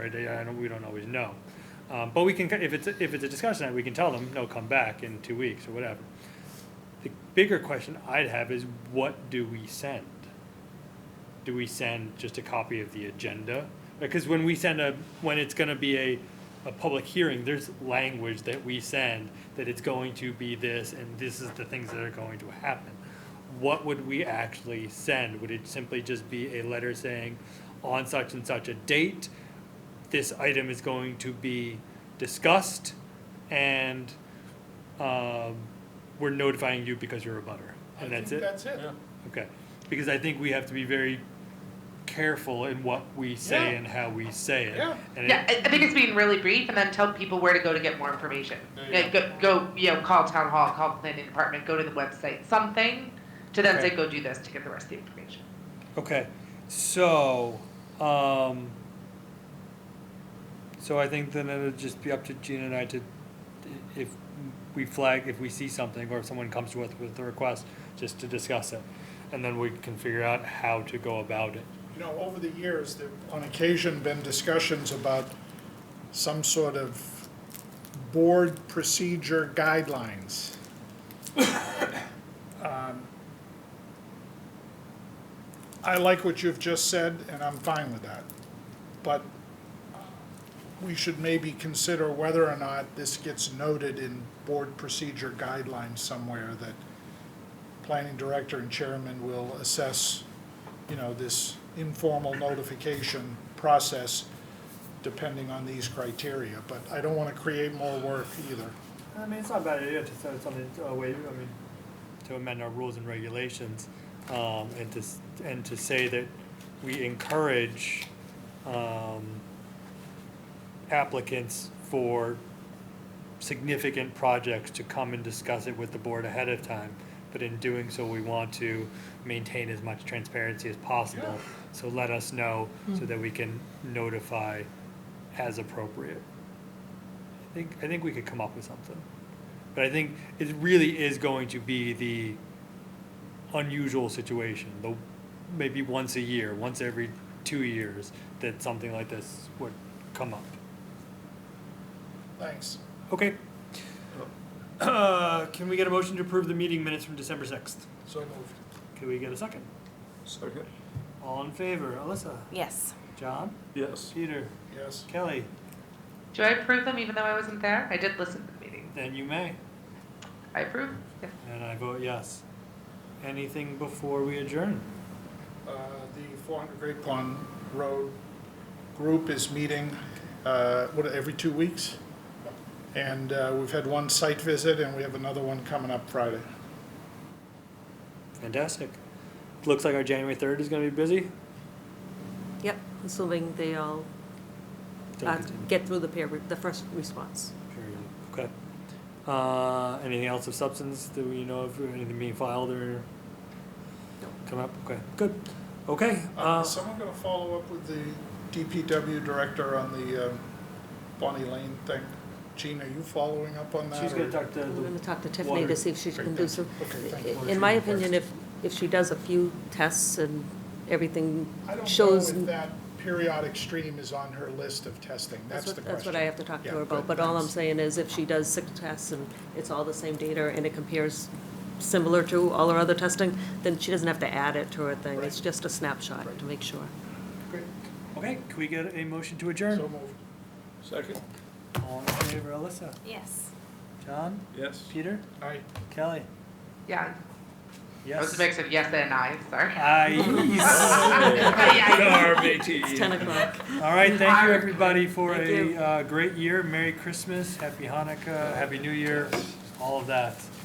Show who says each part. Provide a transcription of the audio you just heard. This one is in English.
Speaker 1: right? They- I don't, we don't always know. Um, But we can, if it's, if it's a discussion, item, we can tell them, no, come back in two weeks or whatever. The bigger question I'd have is what do we send? Do we send just a copy of the agenda? Because when we send a, when it's gonna be a, a public hearing, there's language that we send that it's going to be this and this is the things that are going to happen. What would we actually send? Would it simply just be a letter saying on such and such a date? this item is going to be discussed and um, we're notifying you because you're a butter.
Speaker 2: I
Speaker 1: And that's
Speaker 2: think
Speaker 1: it?
Speaker 2: That's it.
Speaker 1: Okay. Because I think we have to be very careful in what we say
Speaker 2: Yeah.
Speaker 1: and how we say it.
Speaker 2: Yeah.
Speaker 1: And it-
Speaker 3: Yeah, I, I think it's being really brief and then tell people where to go to get more information.
Speaker 2: There you
Speaker 3: Yeah, go, go, you know, call town hall, call planning department, go to the website, something to then
Speaker 1: Okay.
Speaker 3: say, go do this to get the rest of the information.
Speaker 1: Okay, so, um, so I think then it'll just be up to Gina and I to, if we flag, if we see something, or if someone comes to us with a request, just to discuss it. And then we can figure out how to go about it.
Speaker 2: You know, over the years, there have on occasion been discussions about some sort of board procedure guidelines. Um, I like what you've just said, and I'm fine with that. But we should maybe consider whether or not this gets noted in board procedure guidelines somewhere that planning director and chairman will assess, you know, this informal notification process depending on these criteria, but I don't want to create more work either.
Speaker 1: I mean, it's not a bad idea to send something, a way, I mean, to amend our rules and regulations, um, and to, s- and to say that we encourage, um, applicants for significant projects to come and discuss it with the board ahead of time. But in doing so, we want to maintain as much transparency as possible. So let us know so that we can notify as appropriate. I think, I think we could come up with something. But I think it really is going to be the unusual situation, the, maybe once a year, once every two years, that something like this would come up.
Speaker 2: Thanks.
Speaker 1: Okay. Uh, can we get a motion to approve the meeting minutes from December sixth?
Speaker 2: So moved.
Speaker 1: Can we get a second?
Speaker 4: Second.
Speaker 1: All in favor, Alyssa,
Speaker 5: Yes.
Speaker 1: John,
Speaker 4: Yes.
Speaker 1: Peter,
Speaker 2: Yes.
Speaker 1: Kelly,
Speaker 3: Do I approve them even though I wasn't there? I did listen to the meeting.
Speaker 1: then you may,
Speaker 3: I approve? Yeah.
Speaker 1: and I vote yes. Anything before we adjourn?
Speaker 2: Uh, The 400 Great Pond Road group is meeting, uh, what, every two weeks? And uh, we've had one site visit, and we have another one coming up Friday.
Speaker 1: Fantastic. Looks like our January third is gonna be busy.
Speaker 5: Yep, assuming they all
Speaker 1: Don't
Speaker 5: uh,
Speaker 1: continue.
Speaker 5: get through the peer, re- the first response.
Speaker 1: Period. Okay. Uh, anything else of substance that we know of, anything being filed or come up? Okay, good. Okay,
Speaker 2: Uh,
Speaker 1: uh,
Speaker 2: Is someone going to follow up with the DPW director on the uh, Bonnie Lane thing? Gene, are you following up on that?
Speaker 1: she's
Speaker 2: or-
Speaker 1: gonna talk to
Speaker 5: I'm gonna
Speaker 1: the,
Speaker 5: talk to Tiffany
Speaker 1: water-
Speaker 5: to see if she can
Speaker 2: Great,
Speaker 5: do
Speaker 2: thank
Speaker 5: some.
Speaker 2: you. Okay, thank you.
Speaker 5: In my
Speaker 2: Water treatment
Speaker 5: opinion, if, if she does a few tests and everything
Speaker 2: I don't know
Speaker 5: shows.
Speaker 2: if that periodic stream is on her list of testing.
Speaker 5: That's
Speaker 2: That's the
Speaker 5: what,
Speaker 2: question.
Speaker 5: that's what I have to talk to
Speaker 2: Yeah,
Speaker 5: her about,
Speaker 2: good,
Speaker 5: but all I'm
Speaker 2: thanks.
Speaker 5: saying is if she does six tests and it's all the same data and it compares similar to all her other testing, then she doesn't have to add it to her thing. It's
Speaker 2: Right.
Speaker 5: just a snapshot to make sure.
Speaker 2: Great.
Speaker 1: okay, can we get a motion to
Speaker 2: So
Speaker 1: adjourn?
Speaker 2: moved.
Speaker 4: Second.
Speaker 1: All in favor, Alyssa,
Speaker 5: Yes.
Speaker 1: John,
Speaker 4: Yes.
Speaker 1: Peter,
Speaker 2: Aye.
Speaker 1: Kelly,
Speaker 3: Yeah, I was
Speaker 1: yes.
Speaker 3: a mix of yes and I, sorry.
Speaker 1: Ayes.
Speaker 5: It's ten o'clock.
Speaker 1: All right, thank you, everybody, for
Speaker 5: Thank
Speaker 1: a,
Speaker 5: you.
Speaker 1: uh, great year. Merry Christmas, Happy Hanukkah, Happy New Year, all of that.